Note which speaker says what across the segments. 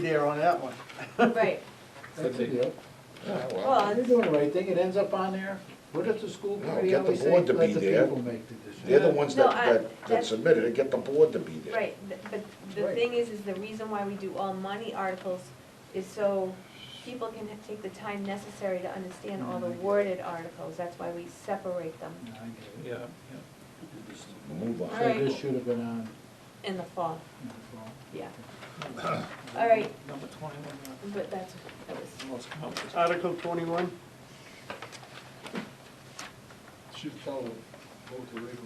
Speaker 1: there on that one.
Speaker 2: Right,
Speaker 3: That's a deal.
Speaker 4: Yeah,
Speaker 2: well,
Speaker 3: You're doing the right thing, it ends up on there. What does the school
Speaker 4: No,
Speaker 3: committee
Speaker 4: get the
Speaker 3: always say?
Speaker 4: board to be there.
Speaker 3: Let the people make the decision.
Speaker 4: They're the ones
Speaker 2: No,
Speaker 4: that,
Speaker 2: I-
Speaker 4: that, that
Speaker 2: that's-
Speaker 4: submitted it, get the board to be there.
Speaker 2: right, th- but the
Speaker 3: Right.
Speaker 2: thing is, is the reason why we do all money articles is so people can take the time necessary to understand all the worded articles, that's why we separate them
Speaker 3: No, I get it.
Speaker 5: Yeah,
Speaker 4: Move on.
Speaker 2: All right.
Speaker 3: So this should have been on
Speaker 2: in the fall,
Speaker 3: in the fall.
Speaker 2: yeah,
Speaker 5: yeah.
Speaker 2: All right.
Speaker 5: Number twenty-one, uh,
Speaker 2: but that's, that was,
Speaker 5: the most complicated.
Speaker 1: Article twenty-one,
Speaker 6: Should tell them, vote to read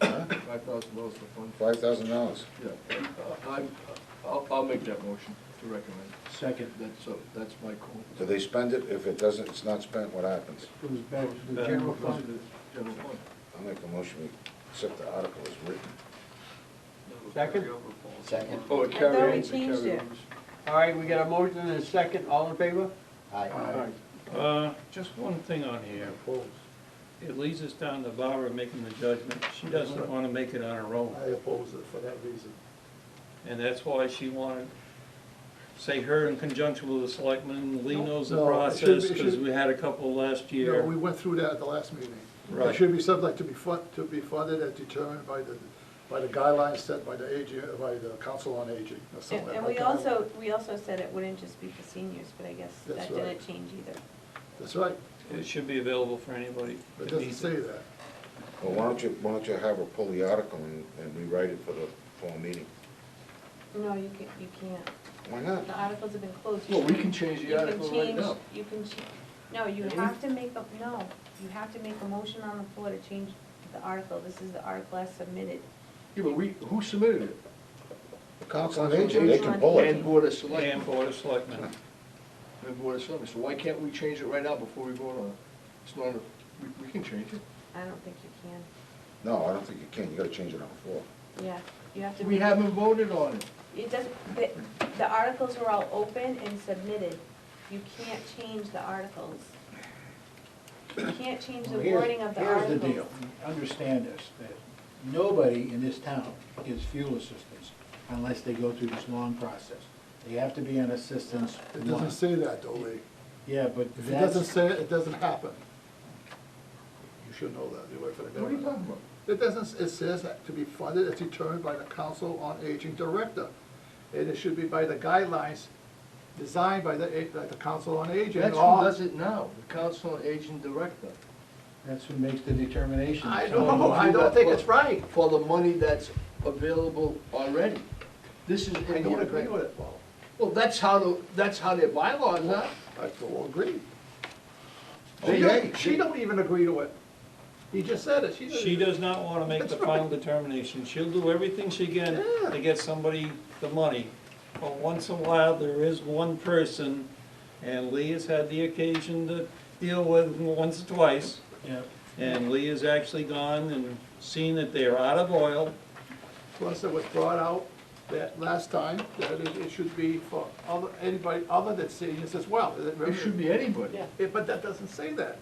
Speaker 4: Huh?
Speaker 6: five thousand dollars for fund.
Speaker 4: Five thousand dollars.
Speaker 6: Yeah, I'm, I'll, I'll make that motion to recommend.
Speaker 3: Second,
Speaker 6: That's, uh, that's my call.
Speaker 4: Do they spend it? If it doesn't, it's not spent, what happens?
Speaker 3: it was back to the
Speaker 5: Back.
Speaker 3: general
Speaker 6: Goes to
Speaker 3: fund.
Speaker 6: Oh, the general fund.
Speaker 4: I make a motion, we accept the article as written.
Speaker 1: second.
Speaker 7: Second.
Speaker 6: Oh,
Speaker 2: I thought
Speaker 6: it
Speaker 2: we
Speaker 6: carries, it
Speaker 2: changed it.
Speaker 6: carries.
Speaker 1: All right, we got a motion and a second, all in favor?
Speaker 7: Aye.
Speaker 5: Uh, just one thing on here. It leads us down to Barbara making the judgment. She doesn't wanna make it on her own.
Speaker 8: I oppose it for that reason.
Speaker 5: And that's why she wanted, say her in conjunction with the selectmen, Lee knows the
Speaker 8: No, no, it should be-
Speaker 5: process,
Speaker 8: it
Speaker 5: because
Speaker 8: should-
Speaker 5: we had a couple last
Speaker 8: You know,
Speaker 5: year.
Speaker 8: we went through that at the last meeting.
Speaker 5: Right.
Speaker 8: It should be subject to be fun, to be funded as determined by the, by the guidelines set by the AG, by the Council on Aging or
Speaker 2: and,
Speaker 8: something.
Speaker 2: and
Speaker 8: like
Speaker 2: we
Speaker 8: that.
Speaker 2: also, we also said it wouldn't just be for seniors, but I guess
Speaker 8: That's
Speaker 2: that
Speaker 8: right.
Speaker 2: didn't change either.
Speaker 8: That's right,
Speaker 5: It should be available for anybody.
Speaker 8: but
Speaker 5: that
Speaker 8: it doesn't
Speaker 5: needs it.
Speaker 8: say that.
Speaker 4: Well, why don't you, why don't you have her pull the article and, and rewrite it for the fall meeting?
Speaker 2: No, you can, you can't.
Speaker 4: Why not?
Speaker 2: The articles have been closed. You
Speaker 6: Well, we
Speaker 2: can-
Speaker 6: can change
Speaker 2: you
Speaker 6: the
Speaker 2: can
Speaker 6: article right
Speaker 2: change-
Speaker 6: now.
Speaker 2: You can, ch- no, you
Speaker 6: Can we?
Speaker 2: have to make a, no, you have to make a motion on the floor to change the article. This is the article as submitted.
Speaker 6: Yeah, but we, who submitted it?
Speaker 4: The Council on Aging, they can pull
Speaker 6: And
Speaker 4: it.
Speaker 6: Board of Selectmen,
Speaker 5: And Board of Selectmen.
Speaker 6: and Board of Selectmen, so why can't we change it right now before we vote on it? It's not, a- we, we can change it.
Speaker 2: I don't think you can.
Speaker 4: No, I don't think you can. You gotta change it on the floor.
Speaker 2: Yeah, you have to.
Speaker 6: We haven't voted on it.
Speaker 2: It doesn't, the, the articles are all open and submitted. You can't change the articles. You can't change the
Speaker 3: Well, here's-
Speaker 2: wording of the articles.
Speaker 3: Here's the deal, understand this, that nobody in this town gets fuel assistance unless they go through this long process. They have to be on assistance
Speaker 8: It
Speaker 3: one.
Speaker 8: doesn't say that, though, Lee.
Speaker 3: Yeah, but
Speaker 8: If it doesn't
Speaker 3: that's,
Speaker 8: say it, it doesn't happen. You should know that, you work for the
Speaker 6: What are you
Speaker 8: government.
Speaker 6: talking about?
Speaker 8: It doesn't, it says that to be funded as determined by the Council on Aging Director. And it should be by the guidelines designed by the, a- by the Council on Aging.
Speaker 6: That's who
Speaker 8: All-
Speaker 6: does it now, the Council on Aging Director.
Speaker 3: that's who makes the determination.
Speaker 8: I
Speaker 3: So-
Speaker 8: know, I don't think it's right.
Speaker 6: For the money that's available already. This is
Speaker 8: I
Speaker 6: in
Speaker 8: don't
Speaker 6: the
Speaker 8: agree with
Speaker 6: agreement.
Speaker 8: it, Paul.
Speaker 6: Well, that's how, the that's how their bylaws are.
Speaker 8: I don't agree. She
Speaker 4: Okay.
Speaker 8: don't, she don't even agree to it. He just said it, she doesn't.
Speaker 5: She does not wanna make the
Speaker 8: That's right.
Speaker 5: final determination. She'll do everything she can
Speaker 8: Yeah.
Speaker 5: to get somebody the money. But once in a while, there is one person, and Lee has had the occasion to deal with once or twice.
Speaker 3: Yeah.
Speaker 5: And Lee has actually gone and seen that they are out of oil.
Speaker 8: Plus, it was brought out that last time, that it, it should be for other, anybody other than seniors as well.
Speaker 6: It should be anybody.
Speaker 8: Yeah, But that doesn't say that.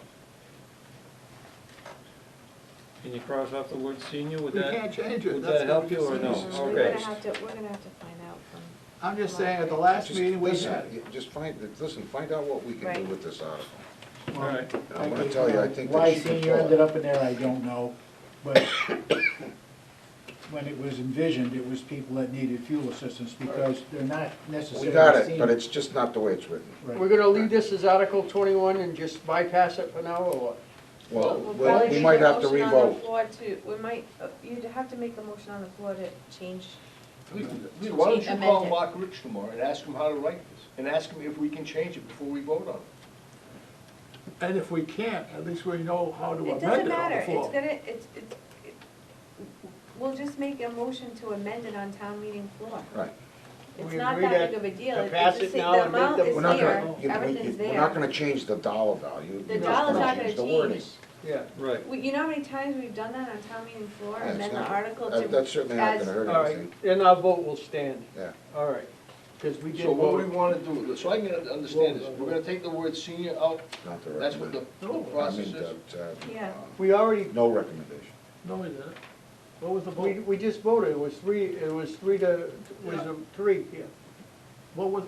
Speaker 5: Can you cross off the word senior with
Speaker 8: We
Speaker 5: that?
Speaker 8: can't change it.
Speaker 5: Would
Speaker 8: That's
Speaker 5: that help
Speaker 8: what
Speaker 5: you
Speaker 8: we
Speaker 5: or no?
Speaker 8: said.
Speaker 2: Mm, We're
Speaker 5: Okay.
Speaker 2: gonna have to, we're gonna have to find out from,
Speaker 8: I'm just saying, at the last
Speaker 4: Just
Speaker 8: meeting we
Speaker 4: listen,
Speaker 8: had,
Speaker 4: you- Just find, listen, find out what we can do
Speaker 2: Right.
Speaker 4: with this article.
Speaker 5: All right.
Speaker 4: And I'm gonna tell you, I think that she
Speaker 3: Why
Speaker 4: can
Speaker 3: senior
Speaker 4: pull
Speaker 3: ended
Speaker 4: it.
Speaker 3: up in there, I don't know, but when it was envisioned, it was people that needed fuel assistance because they're not
Speaker 4: We
Speaker 3: necessarily
Speaker 4: got it, but
Speaker 3: seniors.
Speaker 4: it's just not the way it's written.
Speaker 3: Right.
Speaker 1: We're gonna leave this as Article twenty-one and just bypass it for now, or what?
Speaker 4: Well,
Speaker 2: we'll
Speaker 4: well,
Speaker 2: probably
Speaker 4: we
Speaker 2: make
Speaker 4: might
Speaker 2: a
Speaker 4: have to
Speaker 2: motion on the
Speaker 4: revote.
Speaker 2: floor to, we might, uh, you'd have to make a motion on the floor to change.
Speaker 6: Lee, Lee, why don't you call
Speaker 2: Amended.
Speaker 6: Mark Rich tomorrow and ask him how to write this? And ask him if we can change it before we vote on it.
Speaker 8: and if we can't, at least we know how to
Speaker 2: It
Speaker 8: amend it
Speaker 2: doesn't
Speaker 8: on the
Speaker 2: matter, it's
Speaker 8: floor.
Speaker 2: gonna, it's, it's, it- we'll just make a motion to amend it on town meeting floor.
Speaker 4: Right.
Speaker 2: It's
Speaker 1: We
Speaker 2: not
Speaker 1: agree
Speaker 2: that
Speaker 1: that
Speaker 2: big of a deal,
Speaker 1: to
Speaker 2: it's
Speaker 1: pass
Speaker 2: just,
Speaker 1: it
Speaker 2: the
Speaker 1: now and make
Speaker 2: amount
Speaker 1: the-
Speaker 2: is
Speaker 4: We're not
Speaker 2: there,
Speaker 4: gonna, you-
Speaker 2: everything's
Speaker 4: you-
Speaker 2: there.
Speaker 4: we're not gonna change the dollar value.
Speaker 2: The
Speaker 4: You're just
Speaker 2: dollar's not
Speaker 4: change
Speaker 2: gonna
Speaker 4: the wording.
Speaker 2: change.
Speaker 1: Yeah.
Speaker 5: Right.
Speaker 2: We- You know how many times we've done that on town meeting floor,
Speaker 4: Yeah, it's
Speaker 2: amend the
Speaker 4: not-
Speaker 2: article
Speaker 4: that-
Speaker 2: to.
Speaker 4: That's certainly not
Speaker 2: as-
Speaker 4: gonna hurt
Speaker 1: All right,
Speaker 4: anything,
Speaker 1: then our vote will stand,
Speaker 4: yeah.
Speaker 1: all right, because we did
Speaker 6: So what we
Speaker 1: vote.
Speaker 6: wanna do, so I can understand this, we're gonna take the word senior out,
Speaker 4: Not the
Speaker 6: that's what the the
Speaker 8: No,
Speaker 4: I
Speaker 6: process
Speaker 4: mean,
Speaker 6: is.
Speaker 4: that,
Speaker 2: Yeah.
Speaker 4: uh,
Speaker 1: We already,
Speaker 4: no recommendation.
Speaker 8: No, we didn't. What was the
Speaker 1: we,
Speaker 8: vote?
Speaker 1: we just voted, it was three, it was three to, it was a three, yeah.
Speaker 8: what was